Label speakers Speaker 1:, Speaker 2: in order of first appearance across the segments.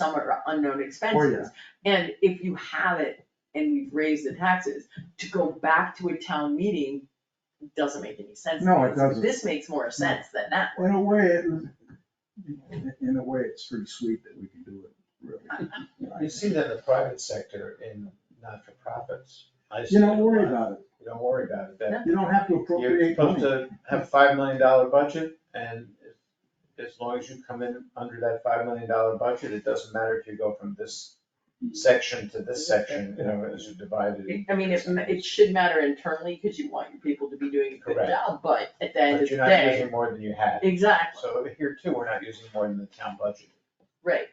Speaker 1: somewhere unknown
Speaker 2: Oh,
Speaker 1: expenses.
Speaker 2: yeah.
Speaker 1: And if you have it and we've raised the taxes, to go back to a town meeting doesn't make any sense. to
Speaker 2: No,
Speaker 1: me.
Speaker 2: it
Speaker 1: It's like,
Speaker 2: doesn't.
Speaker 1: This makes more sense than that.
Speaker 2: Well, In a way, it was- in- in a way, it's pretty sweet that we can do it, really.
Speaker 3: You see that in the private sector in not-for-profits. I see
Speaker 2: You don't
Speaker 3: it a
Speaker 2: worry
Speaker 3: lot.
Speaker 2: about it.
Speaker 3: You don't worry about it, that
Speaker 2: You don't have to
Speaker 3: you're
Speaker 2: appropriate
Speaker 3: supposed
Speaker 2: money.
Speaker 3: to have five million dollar budget, and as long as you come in under that five million dollar budget, it doesn't matter if you go from this section to this section, you know, as you divide it.
Speaker 1: I mean, it, it should matter internally because you want your people to be doing a good
Speaker 3: Correct.
Speaker 1: job, but at the end
Speaker 3: But
Speaker 1: of the
Speaker 3: you're not
Speaker 1: day,
Speaker 3: using more than you had.
Speaker 1: exactly,
Speaker 3: So here too, we're not using more than the town budget
Speaker 1: right.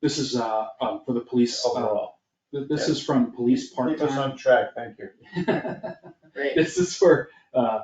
Speaker 4: This is, uh, um, for the police,
Speaker 3: Oh,
Speaker 4: uh,
Speaker 3: overall.
Speaker 4: th- this is from police
Speaker 3: Keep us
Speaker 4: part-time.
Speaker 3: on track, thank you.
Speaker 1: Right.
Speaker 4: This is for, uh,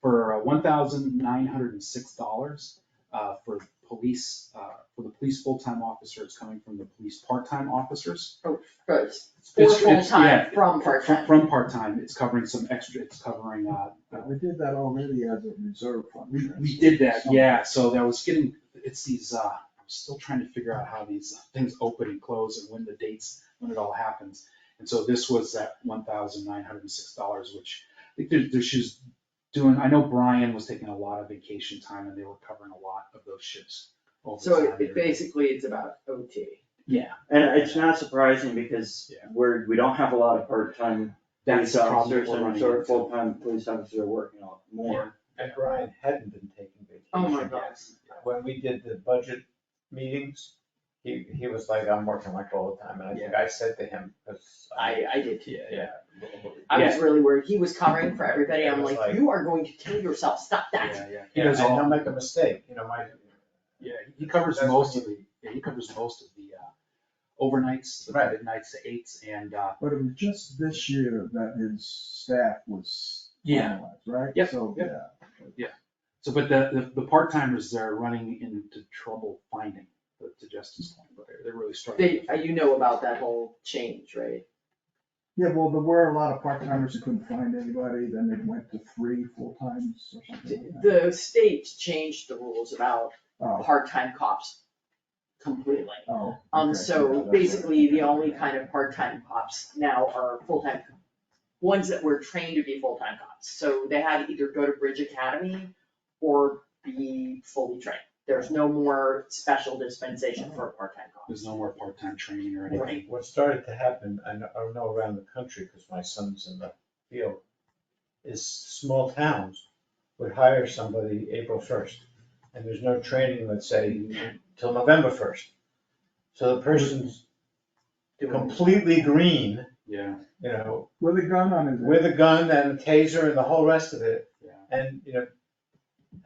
Speaker 4: for one thousand nine hundred and six dollars, uh, for police, uh, for the police full-time officers coming from the police part-time officers.
Speaker 1: For- For s- for
Speaker 4: It's- it's- yeah,
Speaker 1: full-time from
Speaker 4: From,
Speaker 1: part-time.
Speaker 4: from part-time, it's covering some extra, it's covering, uh,
Speaker 2: But We did that already as a reserve fund.
Speaker 4: we, we did that, yeah, so that was getting, it's these, uh, I'm still trying to figure out how these things open and close and when the dates, when it all happens. And so this was that one thousand nine hundred and six dollars, which I think there, there she's doing, I know Brian was taking a lot of vacation time and they were covering a lot of those shifts. over
Speaker 1: So
Speaker 4: time.
Speaker 1: it- it basically, it's about OT.
Speaker 4: Yeah,
Speaker 5: And it's not surprising because
Speaker 4: Yeah.
Speaker 5: we're, we don't have a lot of part-time
Speaker 4: that's
Speaker 5: police
Speaker 4: the problem
Speaker 5: officers,
Speaker 4: we're
Speaker 5: and
Speaker 4: running
Speaker 5: so our
Speaker 4: into.
Speaker 5: full-time police officers are working a lot more.
Speaker 3: And Brian hadn't been taking vacation.
Speaker 1: Oh my
Speaker 3: yet.
Speaker 1: gosh.
Speaker 3: when we did the budget meetings, he, he was like, I'm working like all the time, and I think I said to him, because I.
Speaker 1: I, I did too.
Speaker 3: Yeah.
Speaker 1: I was really worried. He was covering for everybody.
Speaker 3: It
Speaker 1: I'm
Speaker 3: was
Speaker 1: like,
Speaker 3: like-
Speaker 1: you are going to kill yourself. Stop that.
Speaker 4: Yeah, yeah, he
Speaker 3: Yeah,
Speaker 4: does
Speaker 3: and
Speaker 4: all,
Speaker 3: I'll make a mistake, you know, my,
Speaker 4: yeah, he covers
Speaker 3: That's
Speaker 4: most
Speaker 3: what
Speaker 4: of the, yeah, he covers most of the, uh, overnights, the
Speaker 3: Right.
Speaker 4: midnights, the eights, and, uh,
Speaker 2: But it was just this year that his staff was
Speaker 4: Yeah.
Speaker 2: finalized, right?
Speaker 4: Yep,
Speaker 2: So,
Speaker 4: yep.
Speaker 2: yeah.
Speaker 4: So, but the, the, the part-timers, they're running into trouble finding, but to Justin's point, but they're, they're really struggling.
Speaker 1: They, uh, you know about that whole change, right?
Speaker 2: Yeah, well, there were a lot of part-timers who couldn't find anybody, then they went to three full-times or something like that.
Speaker 1: The state changed the rules about
Speaker 2: Oh,
Speaker 1: part-time cops completely.
Speaker 2: oh.
Speaker 1: Um,
Speaker 2: okay, yeah,
Speaker 1: so
Speaker 2: that's right.
Speaker 1: basically, the only kind of part-time cops now are full-time, ones that were trained to be full-time cops. So they had to either go to Bridge Academy or be fully trained. There's no more special dispensation for a part-time cop.
Speaker 4: There's no more part-time training or
Speaker 3: what-
Speaker 4: anything.
Speaker 3: what started to happen, I know, I know around the country, because my son's in the field, is small towns would hire somebody April first, and there's no training, let's say, till November first. So the person's completely green,
Speaker 4: Yeah,
Speaker 3: you know,
Speaker 2: With a gun on his head.
Speaker 3: with a gun and a taser and the whole rest of it,
Speaker 4: yeah.
Speaker 3: and, you know,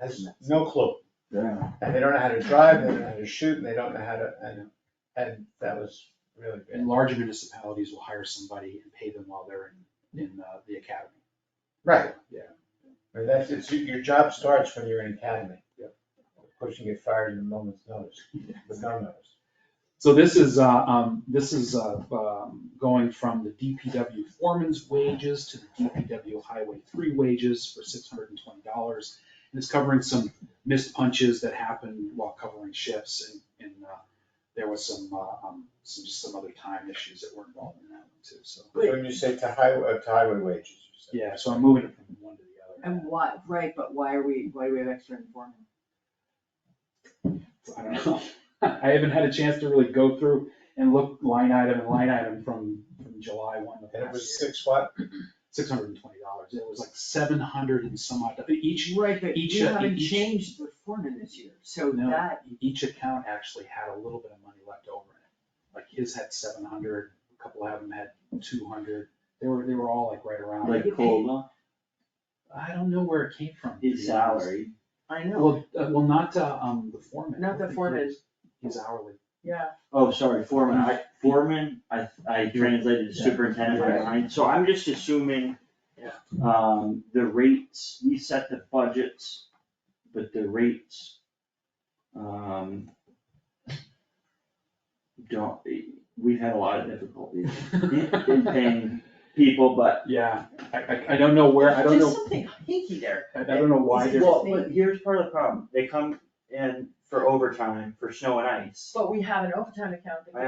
Speaker 3: has no clue.
Speaker 2: Yeah,
Speaker 3: And they don't know how to drive, they don't know how to shoot, and they don't know how to, and, and that was really
Speaker 4: And
Speaker 3: bad.
Speaker 4: larger municipalities will hire somebody and pay them while they're in, in uh, the academy.
Speaker 3: Right.
Speaker 4: Yeah.
Speaker 3: I mean, that's, it's, your job starts when you're in academy.
Speaker 4: Yeah.
Speaker 3: Of course, you get fired in a moment's notice, with no notice.
Speaker 4: So this is, uh, um, this is, uh, um, going from the DPW foreman's wages to the DPW Highway three wages for six hundred and twenty dollars. And it's covering some missed punches that happened while covering shifts and, and, uh, there was some, uh, um, some, just some other time issues that were involved in that one too, so.
Speaker 1: Wait.
Speaker 3: When you say to highway, uh, to highway wages, you said.
Speaker 4: Yeah, so I'm moving it from one to the other.
Speaker 1: And why, right, but why are we, why do we have extra informant?
Speaker 4: I don't know. I haven't had a chance to really go through and look line item and line item from, from July one of last year.
Speaker 3: And it was six what?
Speaker 4: six hundred and twenty dollars, it was like seven hundred and some odd, each,
Speaker 1: Right, but
Speaker 4: each-
Speaker 1: you haven't
Speaker 4: each-
Speaker 1: changed the foreman this year, so
Speaker 4: No.
Speaker 1: that,
Speaker 4: each account actually had a little bit of money left over in it. Like his had seven hundred, a couple of them had two hundred, they were, they were all like right around.
Speaker 5: Like
Speaker 4: it.
Speaker 5: COLA,
Speaker 4: I don't know where it came from. to
Speaker 5: his
Speaker 4: be honest.
Speaker 5: salary,
Speaker 1: I know,
Speaker 4: Well, uh, well, not, uh, um, the foreman.
Speaker 1: Not the foreman.
Speaker 4: His hourly,
Speaker 1: yeah.
Speaker 5: oh, sorry, foreman, I, foreman, I, I translated
Speaker 2: Yeah.
Speaker 5: superintendent by line, so I'm just assuming
Speaker 1: Yeah.
Speaker 5: um, the rates, we set the budgets, but the rates, um, don't, we've had a lot of difficulties in, in paying people, but
Speaker 4: yeah, I, I, I don't know where, I don't
Speaker 1: There's
Speaker 4: know,
Speaker 1: something hinky there.
Speaker 4: I I don't know why
Speaker 1: Is it
Speaker 4: there's.
Speaker 1: just
Speaker 5: Well, but here's part of the problem, they come and
Speaker 6: for overtime, for snow and ice.
Speaker 5: But we have an overtime account that